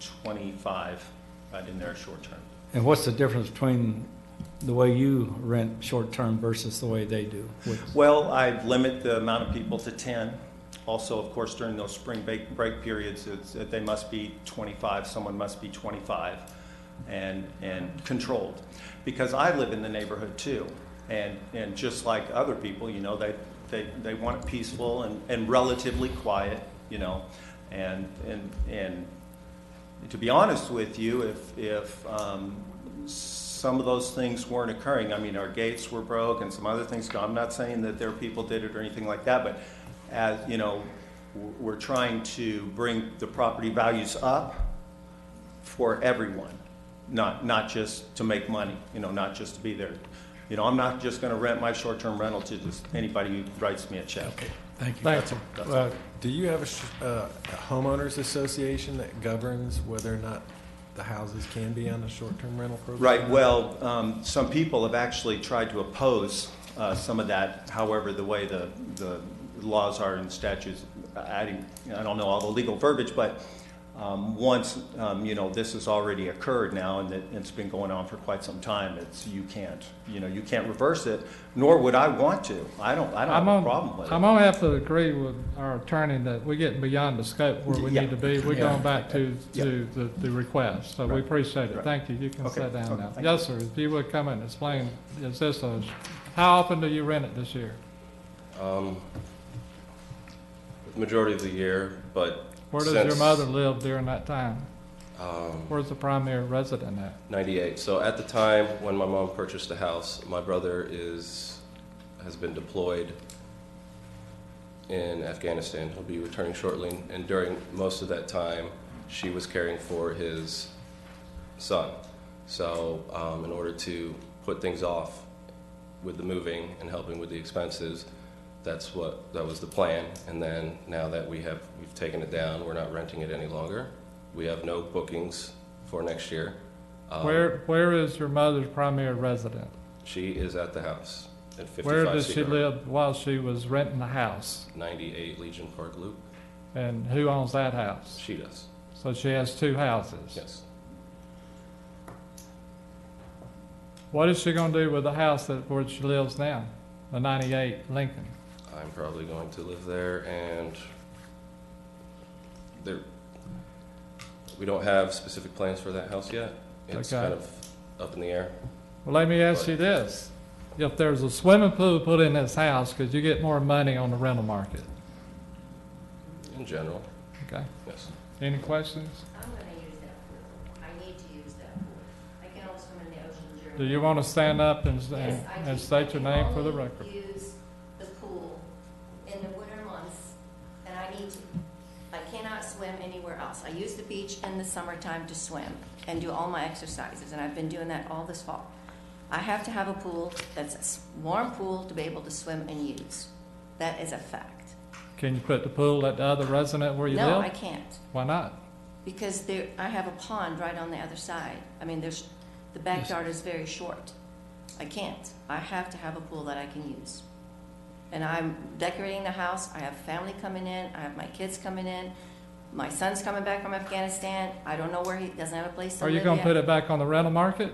2025, right in there, short term. And what's the difference between the way you rent short-term versus the way they do? What's- Well, I limit the amount of people to 10. Also, of course, during those spring break, break periods, it's, they must be 25, someone must be 25 and, and controlled. Because I live in the neighborhood too. And, and just like other people, you know, they, they, they want it peaceful and, and relatively quiet, you know? And, and, and to be honest with you, if, if um, some of those things weren't occurring, I mean, our gates were broke and some other things, I'm not saying that their people did it or anything like that, but as, you know, w- we're trying to bring the property values up for everyone, not, not just to make money, you know, not just to be there. You know, I'm not just gonna rent my short-term rental to just anybody who writes me a check. Thank you. Thank you. Uh, Do you have a sh- uh, a homeowners association that governs whether or not the houses can be on a short-term rental program? Right, well, um, some people have actually tried to oppose uh, some of that, however, the way the, the laws are and statutes, uh, adding, I don't know all the legal verbiage, but um, once, um, you know, this has already occurred now, and it- it's been going on for quite some time, it's, you can't, you know, you can't reverse it, nor would I want to. I don't, I don't I'm have a on, problem with I'm it. gonna have to agree with our attorney that we're getting beyond the scope where we Yeah. need to be. We're Yeah. going back to, Yeah. to the, the request, so we Right. appreciate it. Right. Thank you, you can Okay. sit down Okay. now. Thank Yes, sir, if you would come and explain, is this a, how often do you rent it this year? Um, majority of the year, but Where does your Since- mother live during that time? um, Where's the primary resident at? 98. So at the time when my mom purchased the house, my brother is has been deployed in Afghanistan. He'll be returning shortly, and during most of that time, she was caring for his son. So um, in order to put things off with the moving and helping with the expenses, that's what that was the plan. And then now that we have we've taken it down, we're not renting it any longer. We have no bookings for next year. Um, Where, where is your mother's primary resident? She is at the house at 55 Where does she Cedar, live while she was renting the house? 98 Legion Park Loop. And who owns that house? She does. So she has two houses. Yes. What is she gonna do with the house that, where she lives now, the ninety-eight Lincoln? I'm probably going to live there and there we don't have specific plans for that house yet. It's Okay. kind of up in the air. Well, let me ask you this, if there's a swimming pool put in this house, could you get more money on the rental market? In general, Okay, yes. any questions? I'm gonna use that pool. I need to use that pool. I can also swim in the ocean during. Do you wanna stand up and, Yes, I and do. state your I can name for the only record? Use the pool in the winter months, and I need to, I cannot swim anywhere else. I use the beach in the summertime to swim and do all my exercises, and I've been doing that all this fall. I have to have a pool that's a s- warm pool to be able to swim and use. That is a fact. Can you put the pool at the other resident where you No, I live? can't. Why not? Because there, I have a pond right on the other side. I mean, there's, the backyard is very short. I can't. I have to have a pool that I can use. And I'm decorating the house. I have family coming in. I have my kids coming in. My son's coming back from Afghanistan. I don't know where he, doesn't have a place to Are live you yet. gonna put it back on the rental market?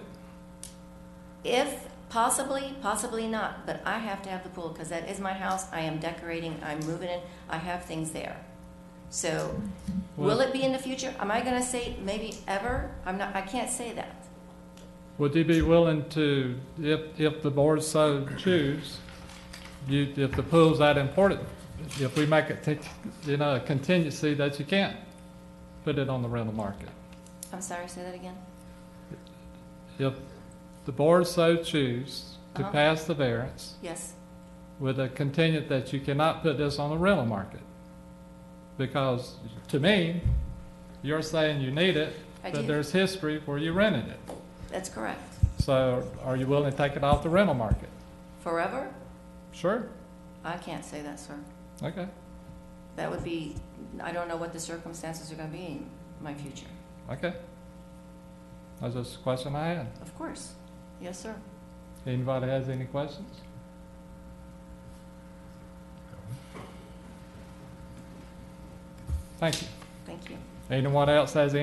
If possibly, possibly not, but I have to have the pool because that is my house. I am decorating, I'm moving in, I have things there. So, will Well- it be in the future? Am I gonna say maybe ever? I'm not, I can't say that. Would you be willing to, if, if the board so choose, you, if the pool's that important, if we make it, take, you know, a contingency that you can't put it on the rental market? I'm sorry, say that again? If the board so choose to Uh-huh. pass the variance Yes, with a contingent that you cannot put this on the rental market? Because to me, you're saying you need it, I but do. there's history where you rented it. that's correct. So are you willing to take it off the rental market? Forever? Sure, I can't say that, sir. okay. That would be, I don't know what the circumstances are gonna be in my future. Okay. That's just a question I had. Of course. Yes, sir. Anybody has any questions? Thank you. Thank you. Anyone else has any